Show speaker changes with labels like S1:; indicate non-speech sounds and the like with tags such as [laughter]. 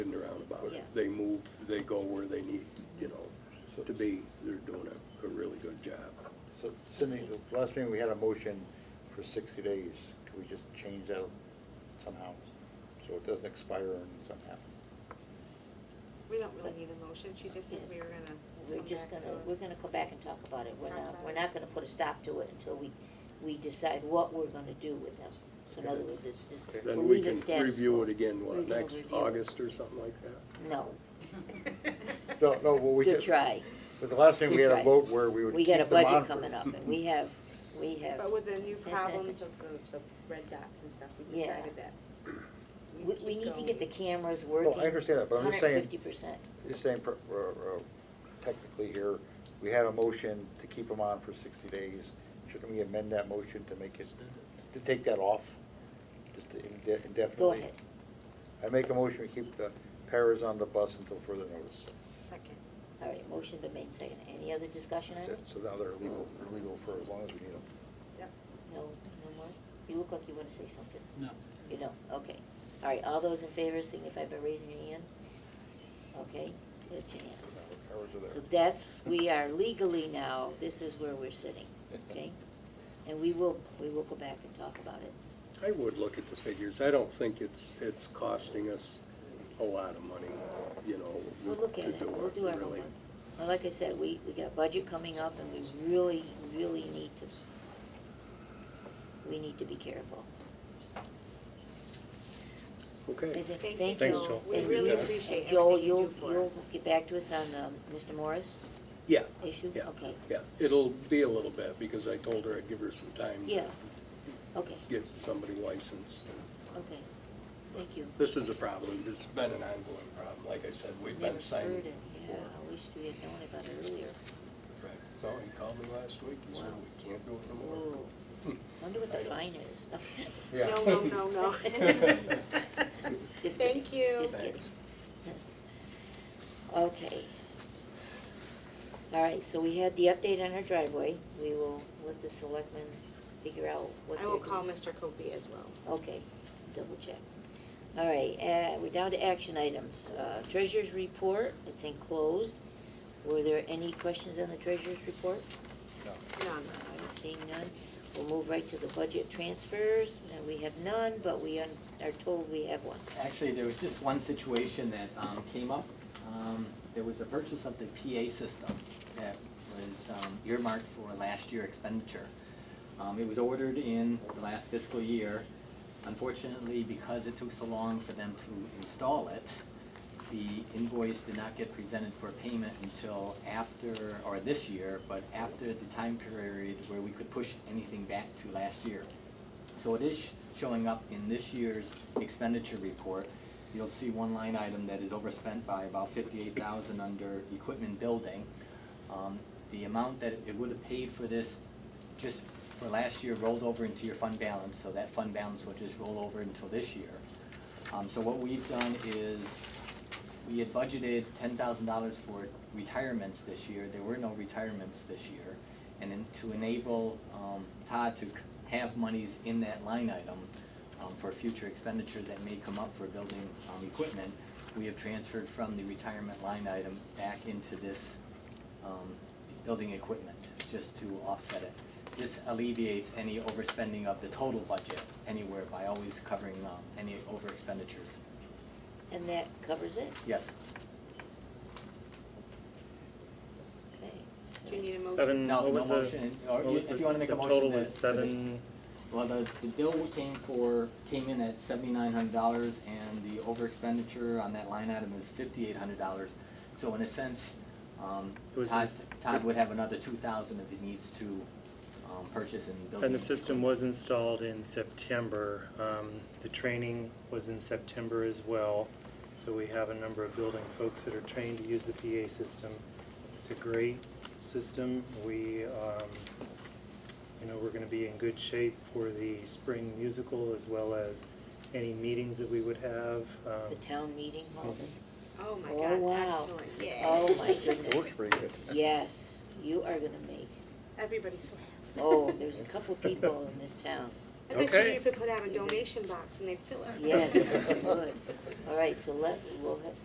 S1: they move, they go where they need, you know, to be. They're doing a, a really good job.
S2: So, Cindy, the last meeting, we had a motion for sixty days. Could we just change that somehow, so it doesn't expire and somehow?
S3: We don't really need a motion, she just said we were gonna.
S4: We're
S3: come
S4: just
S3: back
S4: gonna,
S3: to it.
S4: we're gonna come back and talk about it. We're
S3: Talk
S4: not,
S3: about
S4: we're
S3: it.
S4: not gonna put a stop to it until we, we decide what we're gonna do with them. So in other words, it's just, we'll
S1: Then we
S4: leave it
S1: can
S4: status
S1: review
S4: quo.
S1: it again,
S4: We're
S1: what,
S4: gonna
S1: next
S4: review it.
S1: August or something like that?
S4: No,
S2: No, no, well, we
S4: good
S2: did,
S4: try.
S2: but the last meeting, we had
S4: Good try.
S2: a vote where we would
S4: We
S2: keep
S4: got a
S2: them on
S4: budget
S2: for-
S4: coming up and we have, we have,
S3: But with the
S4: [laughs]
S3: new problems of the, the red dots and stuff, we
S4: Yeah.
S3: decided that.
S4: we, we need to get the cameras working.
S2: Well, I understand that, but I'm just saying.
S4: Hundred fifty percent.
S2: Just saying, per- uh, uh, technically here, we had a motion to keep them on for sixty days. Should we amend that motion to make it, to take that off, just to inde- indefinitely?
S4: Go ahead.
S2: I make a motion to keep the paras on the bus until further notice.
S3: Second.
S4: All right, motion been made, second. Any other discussion on it?
S2: So now they're legal, they're legal for as long as we need them.
S3: Yep.
S4: No, no more? You look like you wanna say something.
S5: No.
S4: You don't, okay. All right, all those in favor signify by raising your hand. Okay, that's your
S2: Now
S4: hand.
S2: the paras are
S4: So
S2: there.
S4: that's, we are legally now, this is where we're sitting, okay? And we will, we will go back and talk about it.
S1: I would look at the figures. I don't think it's, it's costing us a lot of money, you know,
S4: We'll look at
S1: to
S4: it,
S1: do
S4: we'll
S1: it,
S4: do our
S1: really.
S4: homework. Well, like I said, we, we got budget coming up and we really, really need to, we need to be careful.
S1: Okay.
S4: Is it,
S3: Thank you,
S4: thank you.
S3: Thanks, Joel. We
S4: And-
S3: really
S4: and
S3: appreciate
S4: Joel,
S3: everything you
S4: you'll,
S3: do for
S4: you'll
S3: us.
S4: get back to us on, um, Mr. Morris
S1: Yeah,
S4: issue?
S1: Yeah.
S4: Okay,
S1: yeah. It'll be a little bit because I told her I'd give her some time to
S4: yeah, okay,
S1: get somebody licensed.
S4: okay, thank you.
S1: This is a problem. It's been an ongoing problem. Like I said, we've been
S4: Never
S1: signing
S4: heard it, yeah,
S1: before.
S4: I wish we had known about it earlier.
S1: Right. Well, he called me last week, he said,
S4: Wow.
S1: we can't do it no more. Hmm.
S4: Oh, wonder what the
S1: I don't-
S4: fine is.
S1: Yeah.
S3: No, no, no, no.
S4: [laughs] Just kidding.
S3: Thank you.
S4: Just kidding.
S1: Thanks.
S4: Okay. All right, so we had the update on our driveway. We will let the selectmen figure out what
S3: [laughs] I
S4: they're
S3: will
S4: doing.
S3: call Mr. Copey as well.
S4: Okay, double check. All right, uh, we're down to action items. Uh, treasurer's report, it's enclosed. Were there any questions on the treasurer's report?
S2: No.
S3: None.
S4: I'm seeing none. We'll move right to the budget transfers, and we have none, but we un- are told we have one.
S5: Actually, there was just one situation that um, came up. Um, There was a purchase of the PA system that was um, earmarked for last year expenditure. Um, It was ordered in the last fiscal year. Unfortunately, because it took so long for them to install it, the invoice did not get presented for payment until after, or this year, but after the time period where we could push anything back to last year. So it is showing up in this year's expenditure report. You'll see one line item that is overspent by about fifty-eight thousand under equipment building. Um, the amount that it would have paid for this just for last year rolled over into your fund balance, so that fund balance will just roll over until this year. Um, so what we've done is, we had budgeted ten thousand dollars for retirements this year, there were no retirements this year. And then to enable, um, Todd to c- have monies in that line item, um, for future expenditures that may come up for building, um, equipment, we have transferred from the retirement line item back into this, um, building equipment, just to offset it. This alleviates any overspending of the total budget anywhere by always covering, um, any over expenditures.
S4: And that covers it?
S5: Yes?
S3: Do you
S4: Okay.
S3: need a motion?
S6: Seven,
S5: No,
S6: what
S5: no
S6: was the?
S5: motion, or
S6: what
S5: you-
S6: was
S5: if
S6: the-
S5: you wanna make a
S6: the
S5: motion
S6: total
S5: to-
S6: was
S5: to
S6: seven,
S5: Well, the, the bill came for, came in at seventy-nine hundred dollars, and the over expenditure on that line item is fifty-eight hundred dollars. So in a sense, um,
S6: It was
S5: Todd,
S6: this-
S5: Todd would have another two thousand if he needs to, um, purchase and build.
S6: and the system was installed in September. Um, the training was in September as well. So we have a number of building folks that are trained to use the PA system. It's a great system. We, um, you know, we're gonna be in good shape for the spring musical as well as any meetings that we would have. Um,
S4: The town meeting hall is,
S3: Oh, my
S4: Oh,
S3: God,
S4: wow.
S3: excellent, yeah.
S4: oh my
S2: It
S3: [laughs]
S2: works
S4: goodness.
S2: pretty good.
S4: Yes, you are gonna make,
S3: Everybody's so [laughs]
S4: oh, there's a couple people in this town.
S3: happy. I bet you [laughs]
S6: Okay.
S3: you could put out a donation box and they'd fill it.
S4: Yes, good. All right, so let, we'll have,